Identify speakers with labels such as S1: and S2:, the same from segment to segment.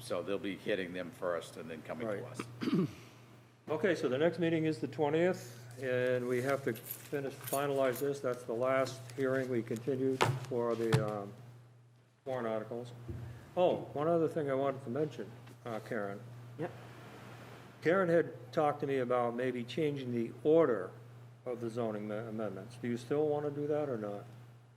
S1: So they'll be hitting them first and then coming to
S2: Right.
S1: us.
S2: Okay, so the next meeting is the 20th, and we have to finish, finalize this. That's the last hearing we continued for the um, warrant articles. Oh, one other thing I wanted to mention, uh, Karen.
S3: Yep.
S2: Karen had talked to me about maybe changing the order of the zoning ma- amendments. Do you still want to do that or not?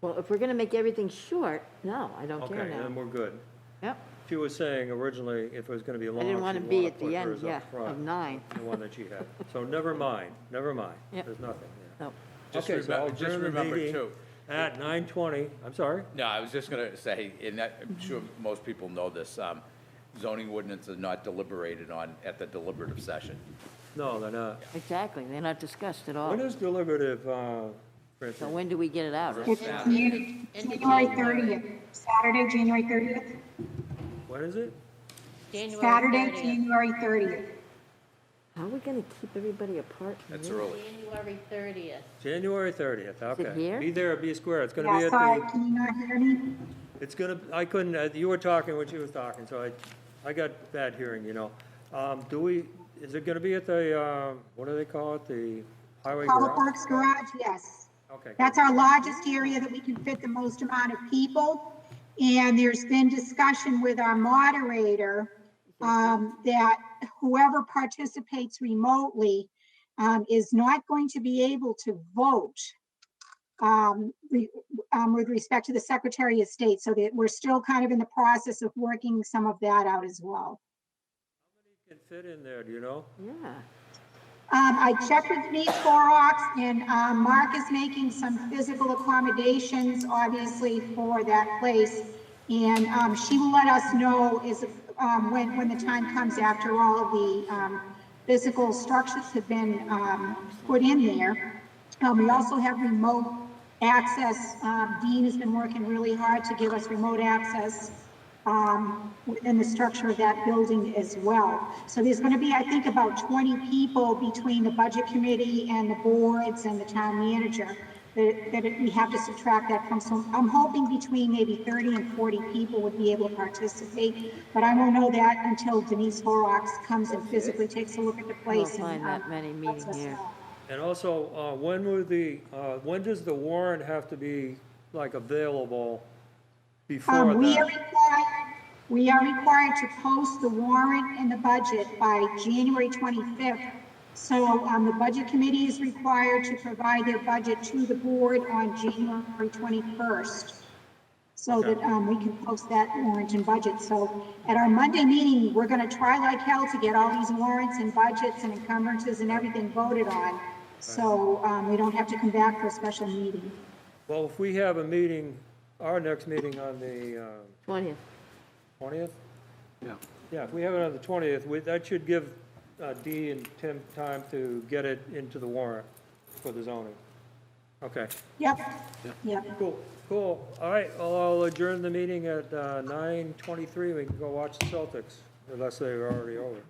S3: Well, if we're going to make everything short, no, I don't care
S2: Okay, then
S3: now.
S2: we're good.
S3: Yep.
S2: She was saying originally if it was going to be long,
S3: I
S2: she'd
S3: didn't
S2: want
S3: want
S2: to
S3: to be at
S2: put
S3: the end,
S2: hers
S3: yeah,
S2: up
S3: of
S2: front,
S3: nine.
S2: the one that she had. So never mind, never mind.
S3: Yep.
S2: There's nothing there.
S3: No.
S1: Just
S2: Okay, so I'll
S1: remember, just
S2: adjourn the
S1: remember
S2: meeting
S1: too.
S2: At nine twenty, I'm sorry,
S1: No, I was just gonna say, and that, I'm sure most people know this, um, zoning ordinances are not deliberated on at the deliberative session.
S2: no, they're not.
S3: Exactly, they're not discussed at all.
S2: When is deliberative, uh,
S3: So
S2: Francine?
S3: when do we get it out?
S4: It's January January 30th, Saturday, January 30th,
S2: When is it?
S5: January
S4: Saturday,
S5: 30th.
S4: January 30th.
S3: How are we going to keep everybody apart? from
S1: That's
S3: here?
S1: early.
S5: January 30th.
S2: January thirtieth, okay.
S3: here?
S2: Be there, or be square, it's gonna be
S4: Yeah,
S2: at
S4: sorry,
S2: the,
S4: can you not hear me?
S2: it's gonna, I couldn't, uh, you were talking when she was talking, so I, I got bad hearing, you know. Um, do we, is it gonna be at the, um, what do they call it, the highway
S4: Public
S2: garage?
S4: Works Garage, yes.
S2: Okay, good.
S4: That's our largest area that we can fit the most amount of people. And there's been discussion with our moderator um, that whoever participates remotely um, is not going to be able to vote um, re- um, with respect to the Secretary of State. So that we're still kind of in the process of working some of that out as well.
S2: Can fit in there, do you know?
S3: Yeah.
S4: Um, I checked with Denise Borox and, um, Mark is making some physical accommodations, obviously, for that place. And, um, she will let us know is, um, when, when the time comes after all the, um, physical structures have been, um, put in there. Um, we also have remote access. Um, Dean has been working really hard to give us remote access um, within the structure of that building as well. So there's going to be, I think, about 20 people between the budget committee and the boards and the town manager that, that we have to subtract that from. So I'm hoping between maybe 30 and 40 people would be able to participate, but I won't know that until Denise Horrocks comes and physically takes a look at the
S3: We'll
S4: place. and,
S3: find that
S4: um,
S3: many meeting
S4: lets us
S3: here.
S4: know.
S2: And also, uh, when would the, uh, when does the warrant have to be, like, available before
S4: Um, we are
S2: that?
S4: required, we are required to post the warrant and the budget by January 25th. So, um, the budget committee is required to provide their budget to the board on January 21st. So that, um, we can post that warrant and budget. So at our Monday meeting, we're gonna try like hell to get all these warrants and budgets and encumbrances and everything voted on. So, um, we don't have to come back for a special meeting.
S2: Well, if we have a meeting, our next meeting on the um,
S3: 20th.
S2: 20th? Yeah. Yeah, if we have it on the 20th, we- that should give uh, Dee and Tim time to get it into the warrant for the zoning. Okay,
S4: Yep, yep.
S2: cool, cool. All right, I'll I'll adjourn the meeting at uh, 9:23. We can go watch the Celtics, unless they're already over.